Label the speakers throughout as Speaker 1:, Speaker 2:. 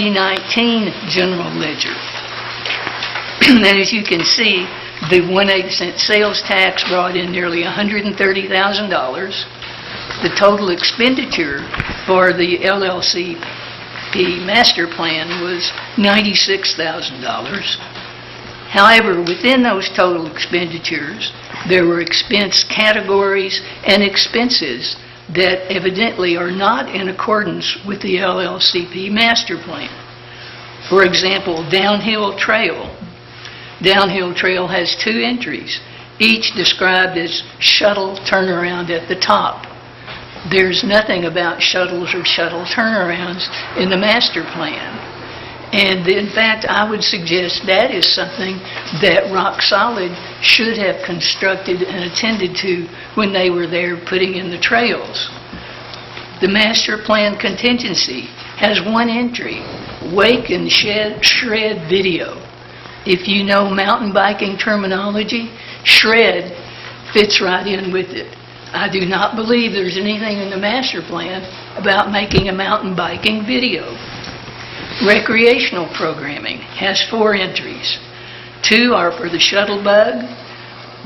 Speaker 1: 2019 general ledger. And as you can see, the 1/8 cent sales tax brought in nearly $130,000. The total expenditure for the LLCP master plan was $96,000. However, within those total expenditures, there were expense categories and expenses that evidently are not in accordance with the LLCP master plan. For example, downhill trail. Downhill trail has two entries, each described as shuttle turnaround at the top. There's nothing about shuttles or shuttle turnarounds in the master plan. And in fact, I would suggest that is something that Rock Solid should have constructed and attended to when they were there putting in the trails. The master plan contingency has one entry, wake and shed, shred video. If you know mountain biking terminology, shred fits right in with it. I do not believe there's anything in the master plan about making a mountain biking video. Recreational programming has four entries. Two are for the shuttle bug,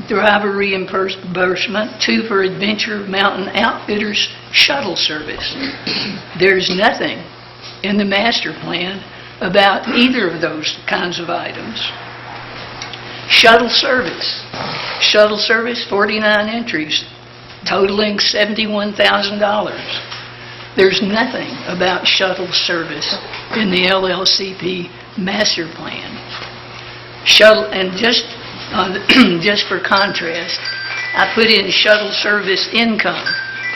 Speaker 1: driver reimbursement, two for Adventure Mountain Outfitters shuttle service. There's nothing in the master plan about either of those kinds of items. Shuttle service. Shuttle service, 49 entries totaling $71,000. There's nothing about shuttle service in the LLCP master plan. Shuttle, and just, uh, just for contrast, I put in shuttle service income.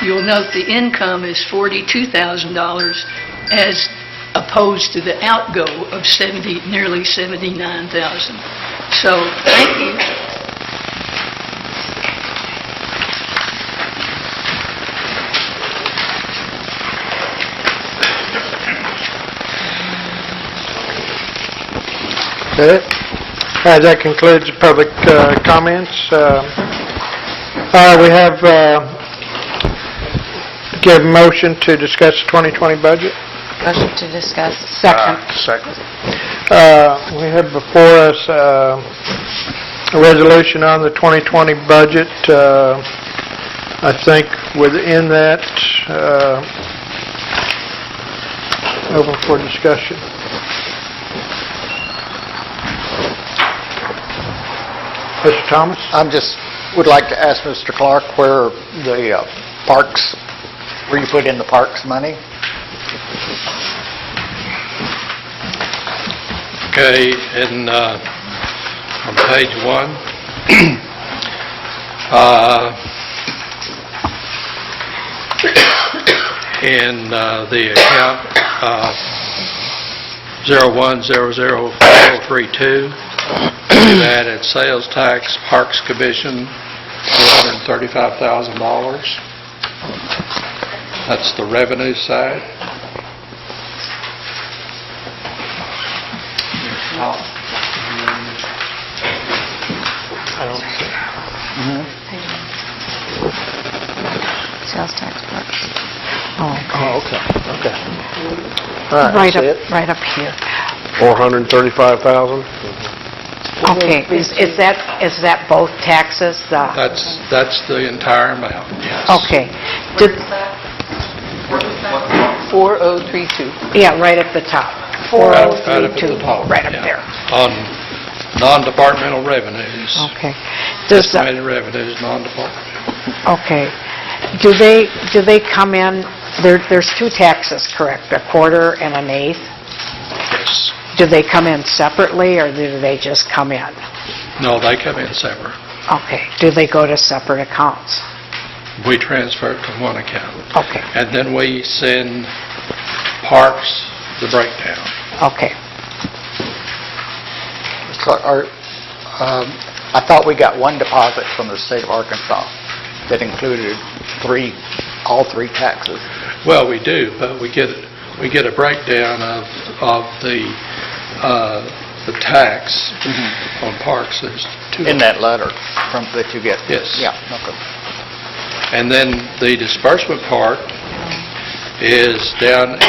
Speaker 1: You'll note the income is $42,000 as opposed to the outgo of 70, nearly 79,000. So, thank you.
Speaker 2: Okay. Uh, That concludes the public uh, comments. Uh, uh, We have, uh, give motion to discuss the 2020 budget.
Speaker 3: Motion to discuss. Ah, Second.
Speaker 2: Second. Uh, We have before us uh, a resolution on the 2020 budget. Uh, I think within that, uh, open for discussion. Mr. Thomas?
Speaker 4: I'm just, would like to ask Mr. Clark where the uh, parks, where you put in the parks money?
Speaker 5: Okay, and uh, on page one, uh, in uh, the account uh, 0100432, we've added sales tax, parks commission, $435,000. That's the revenue side.
Speaker 4: Mm-hmm.
Speaker 3: Sales tax parks. Oh,
Speaker 4: Oh, okay, okay.
Speaker 2: All right,
Speaker 3: right
Speaker 2: that's it.
Speaker 3: up, right up here.
Speaker 2: 435,000?
Speaker 3: Okay, is is that, is that both taxes? The-
Speaker 5: That's, that's the entire amount, yes.
Speaker 3: Okay. Did-
Speaker 6: 4032.
Speaker 3: Yeah, right at the top.
Speaker 5: Right up- right up at the
Speaker 3: 4032,
Speaker 5: top,
Speaker 3: right up
Speaker 5: yeah.
Speaker 3: there.
Speaker 5: On non-departmental revenues,
Speaker 3: Okay. Does, the-
Speaker 5: estimated revenues, non-departmental.
Speaker 3: okay. Do they, do they come in, there, there's two taxes, correct? A quarter and an eighth?
Speaker 5: Yes.
Speaker 3: Do they come in separately, or do they just come in?
Speaker 5: No, they come in separate.
Speaker 3: Okay. Do they go to separate accounts?
Speaker 5: We transfer it to one account.
Speaker 3: Okay,
Speaker 5: And then we send parks the breakdown.
Speaker 3: okay.
Speaker 4: Mr. Clark, are, um, I thought we got one deposit from the state of Arkansas that included three, all three taxes.
Speaker 5: Well, we do, but we get, we get a breakdown of, of the, uh, the tax on parks. There's two.
Speaker 4: In that letter from, that you get?
Speaker 5: Yes.
Speaker 4: Yeah, okay.
Speaker 5: And then the disbursement part is down